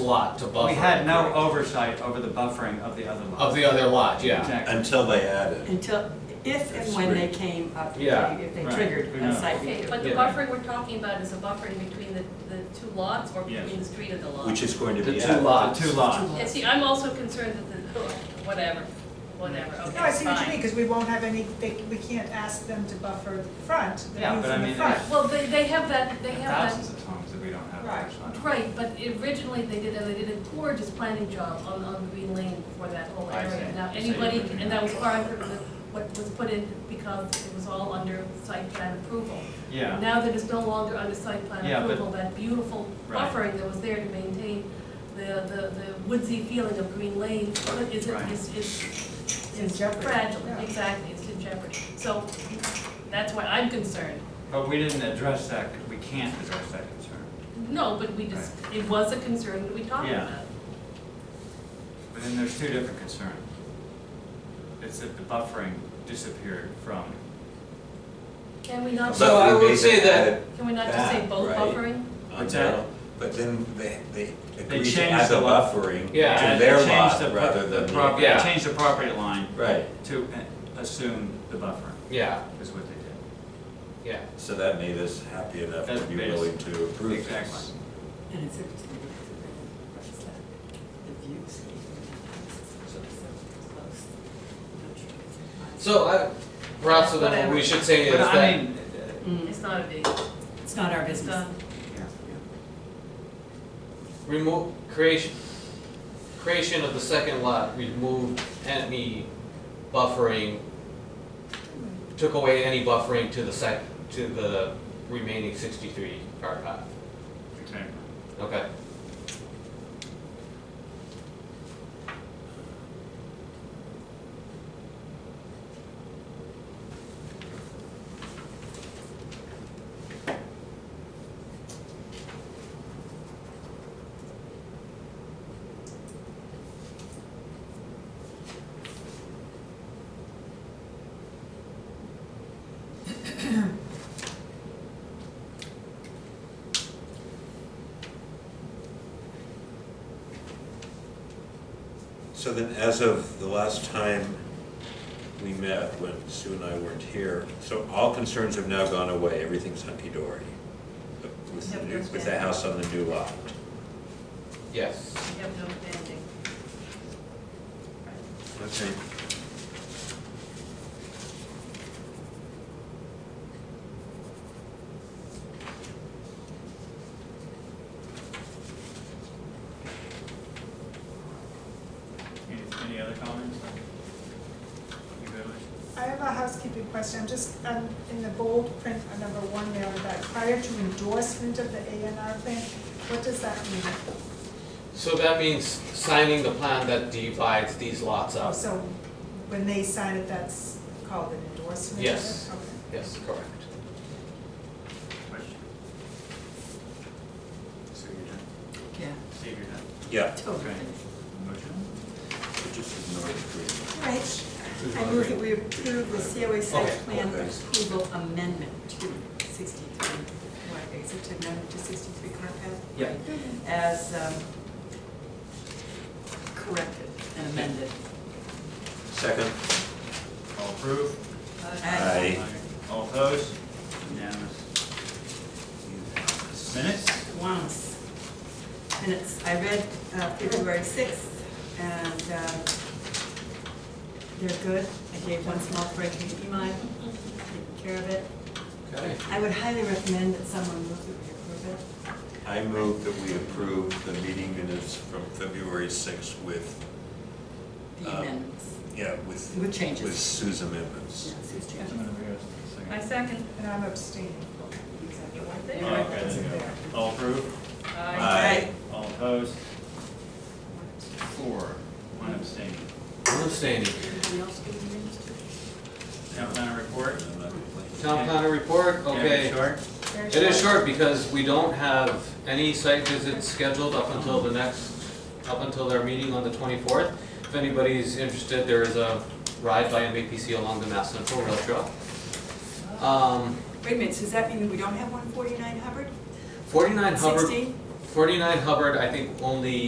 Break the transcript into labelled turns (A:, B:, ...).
A: lot to buffer.
B: We had no oversight over the buffering of the other lot.
A: Of the other lot, yeah.
B: Exactly.
C: Until they added.
D: Until, if and when they came up,
A: Yeah.
D: if they
B: Right.
D: triggered
B: Who
D: a
B: knows?
D: site
E: Okay,
D: review.
E: but the
A: Yeah.
E: buffering we're talking about is a buffering between the, the two lots or between the street and the lot?
C: Which is going to
A: The
C: be
A: two
C: added.
A: lots.
B: Two lots.
E: Yeah, see, I'm also concerned that the, whatever, whatever, okay,
F: No, I see what you
E: fine.
F: mean, because we won't have any, they, we can't ask them to buffer the front, the
B: Yeah,
F: roof
B: but I
F: and the
B: mean,
F: front.
B: if-
E: Well, they, they have that, they have
B: Thousands of times that we don't have
F: Right.
E: that,
B: oversight.
E: right, but originally they did, they did a gorgeous planning job on, on Green Lane for that whole
B: I
E: area.
B: see.
E: Now,
B: So you
E: anybody,
B: wouldn't-
E: and that was part of the- what was put in because it was all under site plan approval.
B: Yeah,
E: Now that it's no longer under site plan
B: Yeah, but-
E: approval, that beautiful
B: Right.
E: buffering that was there to maintain the, the, the woodsy feeling of Green Lane is,
B: Right.
E: is, is.
F: It's in jeopardy,
E: Fragile,
F: yeah.
E: exactly, it's in jeopardy. So that's why I'm concerned.
B: but we didn't address that, we can't address that concern.
E: No, but we just, it was a concern that we talked
B: Yeah.
E: about.
B: But then there's two different concerns. It's that the buffering disappeared from,
E: Can we not,
A: So I
C: But we
A: would say
C: basically
A: that-
C: added
E: can we not just say
C: That,
E: both
C: right.
E: buffering?
C: on
B: What's that?
C: their- But then they, they agreed to
B: changed
C: add the
B: the lot.
C: buffering
A: Yeah,
C: to
B: and
C: their
B: they changed
C: lot
B: the pro-
C: rather than.
B: the
C: the-
B: prop-
A: Yeah.
B: They changed the property line
C: Right,
B: to uh, assume the buffering,
A: Yeah,
B: is what they did.
A: yeah.
C: so that made us happy enough to
B: That's
C: be
B: based-
C: willing to approve this.
B: Exactly.
D: And it's interesting because it reflects that the views.
A: So I, Rob, so then what we should say is
B: But I
A: that,
B: mean, uh,
D: Mm,
E: It's not a big,
D: It's not our
E: it's
D: business.
E: done.
B: yeah.
A: remove, creation, creation of the second lot, removed any buffering, took away any buffering to the sec, to the remaining sixty-three car path.
B: Exactly.
A: Okay.
C: So then, as of the last time we met, when Sue and I weren't here, so all concerns have now gone away, everything's hunky-dory with the, new- with the house on the new lot.
A: Yes.
E: We have no banding.
C: Okay.
B: Any, any other comments? You good with it?
F: I have a housekeeping question, I'm just, um, in the bold print on number one there, that prior to endorsement of the A and R plan, what does that mean?
A: So that means signing the plan that divides these lots up.
F: So when they sign it, that's called an endorsement? is it?
A: Yes.
F: Okay.
A: Yes, correct.
B: Question? Sue, you're done?
D: Yeah.
B: Steve, you're done?
C: Yeah,
D: Totally.
B: Motion?
C: so just ignore the green.
D: Right. I move that we approve the COA site
A: Okay.
D: plan
C: Okay.
D: approval amendment to sixty-three, what, except amendment to sixty-three Carpath?
B: Yeah.
D: As um, corrected and amended.
C: Second,
B: All approved?
C: Aye.
B: All opposed? Unanimous. Minutes?
D: Once. Minutes, I read uh, February sixth, and um, they're good. I gave one small E correction to Imai, taking care of it.
A: Okay.
D: I would highly recommend that someone move that we approve it.
C: I move that we approve the meeting minutes from February sixth with,
D: The
C: Um,
D: amendments.
C: yeah, with.
D: With changes.
C: With Sue's amendments.
B: I'm gonna read this in a
E: I
B: second.
E: second.
F: And I'm abstaining.
E: You
D: Exactly.
E: weren't there.
B: Oh, okay, there you go. All approved?
E: Aye.
C: Aye.
B: All opposed? Four, one abstaining.
A: I'm abstaining.
D: Anybody else give me minutes?
B: Town planner report?
A: Town planner report,
B: Yeah,
A: okay.
B: Short?
F: Very
A: It is short because we don't have any site visits scheduled up until the next, up until their meeting on the twenty-fourth. If anybody's interested, there is a ride by MAPC along the Mass Central Rail Trail. Um,
D: Wait a minute, so does that mean we don't have one forty-nine Hubbard?
A: forty-nine Hubbard,
D: Sixty?
A: forty-nine Hubbard, I think only